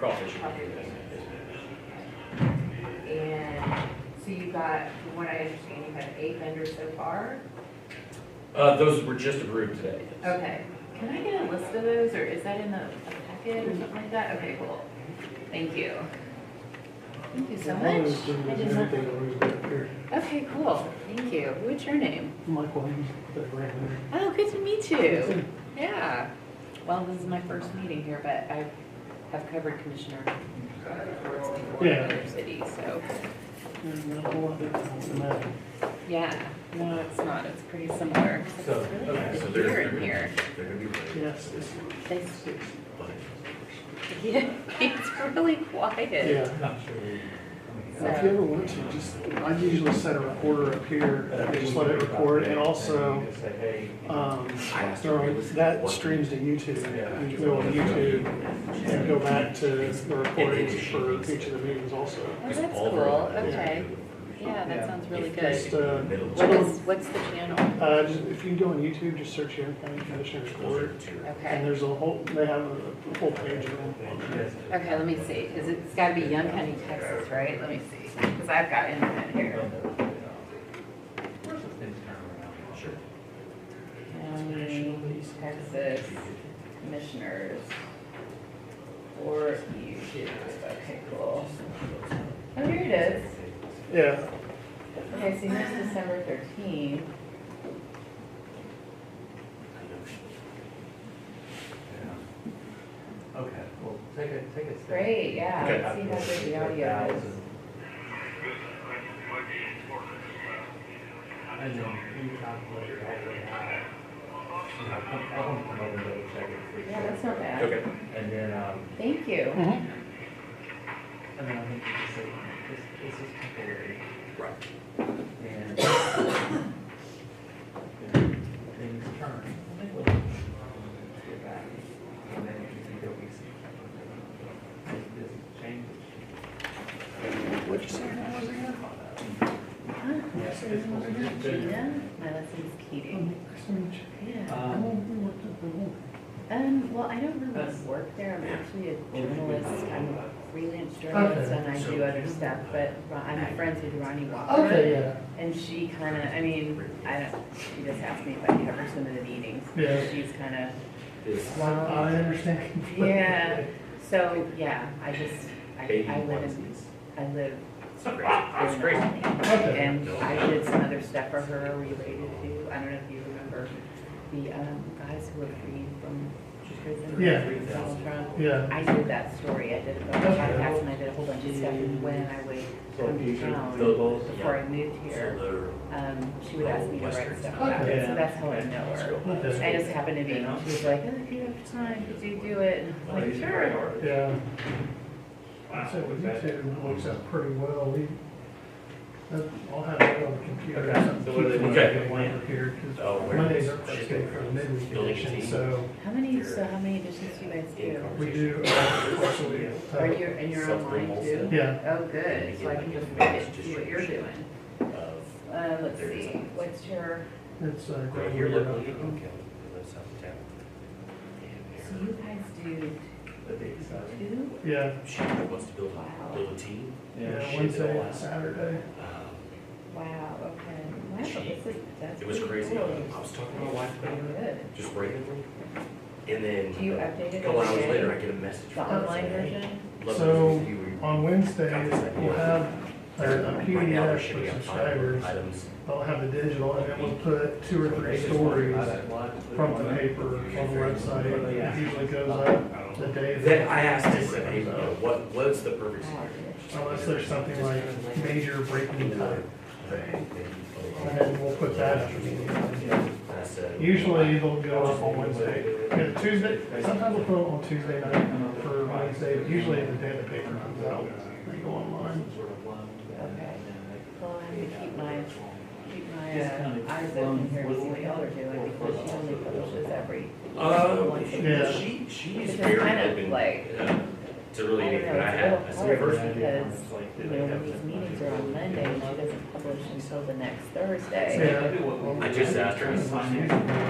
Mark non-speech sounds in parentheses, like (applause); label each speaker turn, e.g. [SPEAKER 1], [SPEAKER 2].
[SPEAKER 1] television.
[SPEAKER 2] And so you've got, from what I understand, you've had eight vendors so far?
[SPEAKER 1] Uh, those were just approved today.
[SPEAKER 2] Okay. Can I get a list of those, or is that in the a packet or something like that? Okay, cool. Thank you. Thank you so
[SPEAKER 3] One of
[SPEAKER 2] much.
[SPEAKER 3] those things
[SPEAKER 2] I
[SPEAKER 3] is
[SPEAKER 2] just-
[SPEAKER 3] anything that was back here.
[SPEAKER 2] Okay, cool. Thank you. What's your name?
[SPEAKER 3] Michael Haynes, that ran
[SPEAKER 2] Oh, good to meet
[SPEAKER 3] there.
[SPEAKER 2] you. Yeah. Well, this is my first meeting here, but I have covered Commissioner Ford's before in
[SPEAKER 3] Yeah.
[SPEAKER 2] other cities, so,
[SPEAKER 3] And not a whole lot different than that.
[SPEAKER 2] yeah. No, it's not. It's pretty similar. It's
[SPEAKER 4] So,
[SPEAKER 2] really
[SPEAKER 4] okay,
[SPEAKER 2] nice
[SPEAKER 4] so
[SPEAKER 2] to
[SPEAKER 4] they're,
[SPEAKER 2] hear
[SPEAKER 4] they're
[SPEAKER 2] in
[SPEAKER 4] gonna,
[SPEAKER 2] here.
[SPEAKER 4] they're gonna be ready.
[SPEAKER 3] Yes, it's
[SPEAKER 2] They-
[SPEAKER 3] six.
[SPEAKER 2] Yeah, (laughs) it's really quiet.
[SPEAKER 3] Yeah.
[SPEAKER 4] Not sure.
[SPEAKER 3] Now, If you ever want to, just, I usually set a recorder up here, and just let it record, and also, um, throw- that streams to YouTube. You can go on YouTube and
[SPEAKER 2] Oh,
[SPEAKER 3] go back to the recordings for each of the meetings also.
[SPEAKER 2] Oh, that's cool. Okay. Yeah, that sounds really
[SPEAKER 3] Just,
[SPEAKER 2] good.
[SPEAKER 3] uh,
[SPEAKER 2] What is, what's the channel?
[SPEAKER 3] uh, just- if you go on YouTube, just search Aaron County Commissioners Court, and
[SPEAKER 2] Okay.
[SPEAKER 3] there's a whole, they have a whole page of them.
[SPEAKER 2] Okay, let me see. Is it, it's gotta be Young County, Texas, right? Let me see. Cause I've got internet here.
[SPEAKER 4] Sure.
[SPEAKER 2] County, Texas Commissioners. Or YouTube. Okay, cool. Oh, here it is.
[SPEAKER 3] Yeah,
[SPEAKER 2] Okay, so here's December thirteenth.
[SPEAKER 4] Okay, well, take a, take a. sec.
[SPEAKER 2] Great, yeah.
[SPEAKER 4] Okay.
[SPEAKER 2] Let's see how good the audio is.
[SPEAKER 4] And then we calculate it all the way out. And I'll come, I'll come over and double check it. for
[SPEAKER 2] Yeah, that's
[SPEAKER 4] sure.
[SPEAKER 2] not bad.
[SPEAKER 1] Okay.
[SPEAKER 4] And then, um,
[SPEAKER 2] Thank you.
[SPEAKER 4] and then I think we just say, this, this is temporary.
[SPEAKER 1] Right.
[SPEAKER 4] And (coughs) things turn. Get back. And then you can go, we see. Make uh, this change.
[SPEAKER 1] What'd you say your name was again?
[SPEAKER 4] Yes, it's supposed to be good.
[SPEAKER 2] Gina, my lesson's Keating. Yeah.
[SPEAKER 4] Um,
[SPEAKER 2] Um, well, I don't really
[SPEAKER 4] That's-
[SPEAKER 2] work there. I'm actually a
[SPEAKER 4] Well, we can-
[SPEAKER 2] journalist. I'm a freelance journalist
[SPEAKER 3] Okay.
[SPEAKER 2] and I do other stuff, but Ro- I'm friends with Ronnie Walker.
[SPEAKER 3] Okay, yeah.
[SPEAKER 2] And she kind of, I mean, I don't, she just asked me if I cover some of the meetings.
[SPEAKER 3] Yeah.
[SPEAKER 2] She's kind of
[SPEAKER 1] This-
[SPEAKER 3] I I understand.
[SPEAKER 2] Yeah, so, yeah, I just, I, I live in,
[SPEAKER 1] onesies.
[SPEAKER 2] I live
[SPEAKER 1] It's not great. It's
[SPEAKER 2] in the
[SPEAKER 1] great.
[SPEAKER 2] valley.
[SPEAKER 3] Okay.
[SPEAKER 2] And I did some other stuff for her related to, I don't know if you remember, the, um, guys who were freed from prison.
[SPEAKER 3] Yeah.
[SPEAKER 2] Donald Trump.
[SPEAKER 3] Yeah.
[SPEAKER 2] I did that story, I did a bunch of podcasts and I did a whole bunch of stuff, and when I would come to town, before I moved here, um, she would ask me to write stuff about it, so that's how I know her. I just happened to be, she was like, oh, if you have time, could you do it? And I was like, sure.
[SPEAKER 3] Yeah. I said, with YouTube, it works out pretty well. We, that- I'll have it on the computer. or
[SPEAKER 4] Okay.
[SPEAKER 3] something.
[SPEAKER 4] So what do they
[SPEAKER 3] Keep
[SPEAKER 4] want?
[SPEAKER 3] it up Over here,
[SPEAKER 1] Oh,
[SPEAKER 3] because
[SPEAKER 1] where
[SPEAKER 3] Mondays
[SPEAKER 1] is
[SPEAKER 3] are
[SPEAKER 1] it?
[SPEAKER 3] scheduled for the midweek
[SPEAKER 1] Building
[SPEAKER 3] edition,
[SPEAKER 1] team.
[SPEAKER 3] so
[SPEAKER 2] How many, so how many editions do you guys do?
[SPEAKER 3] we do, uh, twice a week.
[SPEAKER 2] Are you, and you're online too?
[SPEAKER 3] Yeah.
[SPEAKER 2] Oh, good, so I can just look at see what you're doing.
[SPEAKER 1] Of
[SPEAKER 2] Uh, let's see, what's your,
[SPEAKER 3] It's, uh,
[SPEAKER 1] Um, Right
[SPEAKER 3] great.
[SPEAKER 1] here
[SPEAKER 3] We're
[SPEAKER 1] locally,
[SPEAKER 3] not-
[SPEAKER 1] okay, that's out of town.
[SPEAKER 2] so you guys do
[SPEAKER 4] The big size.
[SPEAKER 2] two?
[SPEAKER 3] Yeah,
[SPEAKER 1] She wants to build a, build a team.
[SPEAKER 3] yeah,
[SPEAKER 1] She did
[SPEAKER 3] Wednesday
[SPEAKER 1] all
[SPEAKER 3] and
[SPEAKER 1] that.
[SPEAKER 3] Saturday.
[SPEAKER 1] Um,
[SPEAKER 2] Wow, okay. Wow, this is, that's
[SPEAKER 1] It was
[SPEAKER 2] pretty
[SPEAKER 1] crazy. Um,
[SPEAKER 2] cool. Oh,
[SPEAKER 1] I was talking to my wife about it,
[SPEAKER 2] Good.
[SPEAKER 1] just randomly. And then
[SPEAKER 2] Do you update
[SPEAKER 1] a
[SPEAKER 2] it
[SPEAKER 1] couple
[SPEAKER 2] every
[SPEAKER 1] hours
[SPEAKER 2] day?
[SPEAKER 1] later, I get a message
[SPEAKER 2] The
[SPEAKER 1] from her.
[SPEAKER 2] online
[SPEAKER 1] saying,
[SPEAKER 2] version?
[SPEAKER 1] "Hey, love
[SPEAKER 3] So,
[SPEAKER 1] this with you. We-
[SPEAKER 3] On Wednesday, we'll have uh, a a
[SPEAKER 1] Right now, they're
[SPEAKER 3] PDF for
[SPEAKER 1] shipping out five
[SPEAKER 3] subscribers.
[SPEAKER 1] items.
[SPEAKER 3] I'll have the digital, and then we'll put two or three stories from the paper on the website. It usually goes up the day
[SPEAKER 1] Then
[SPEAKER 3] that,
[SPEAKER 1] I asked her, "Hey, you know, what, what's the perfect
[SPEAKER 2] Wow.
[SPEAKER 1] scenario?
[SPEAKER 3] unless there's something like major breaking time.
[SPEAKER 2] Oh.
[SPEAKER 3] And
[SPEAKER 1] And
[SPEAKER 3] then we'll put that up.
[SPEAKER 1] I said,
[SPEAKER 3] Usually it'll go up on Wednesday, And Tuesday, sometimes we'll put it on Tuesday night for Wednesday, but usually the day the paper comes out, they go online.
[SPEAKER 2] Okay. Well, I'm gonna keep my, keep my uh, eyes open here to see what y'all are doing, because she only publishes every.
[SPEAKER 1] Um,
[SPEAKER 2] once a
[SPEAKER 3] Yeah.
[SPEAKER 2] month.
[SPEAKER 1] she, she's
[SPEAKER 2] It's
[SPEAKER 1] very
[SPEAKER 2] kind of
[SPEAKER 1] open,
[SPEAKER 2] like-
[SPEAKER 1] uh, to really
[SPEAKER 2] I don't
[SPEAKER 1] anything,
[SPEAKER 2] know,
[SPEAKER 1] but I
[SPEAKER 2] it's a
[SPEAKER 1] had,
[SPEAKER 2] little
[SPEAKER 1] I said,
[SPEAKER 2] hard
[SPEAKER 1] first,
[SPEAKER 2] Because, you know, when these meetings are on Monday, and she doesn't publish until the next Thursday.
[SPEAKER 3] Yeah.
[SPEAKER 1] I just asked her, I said,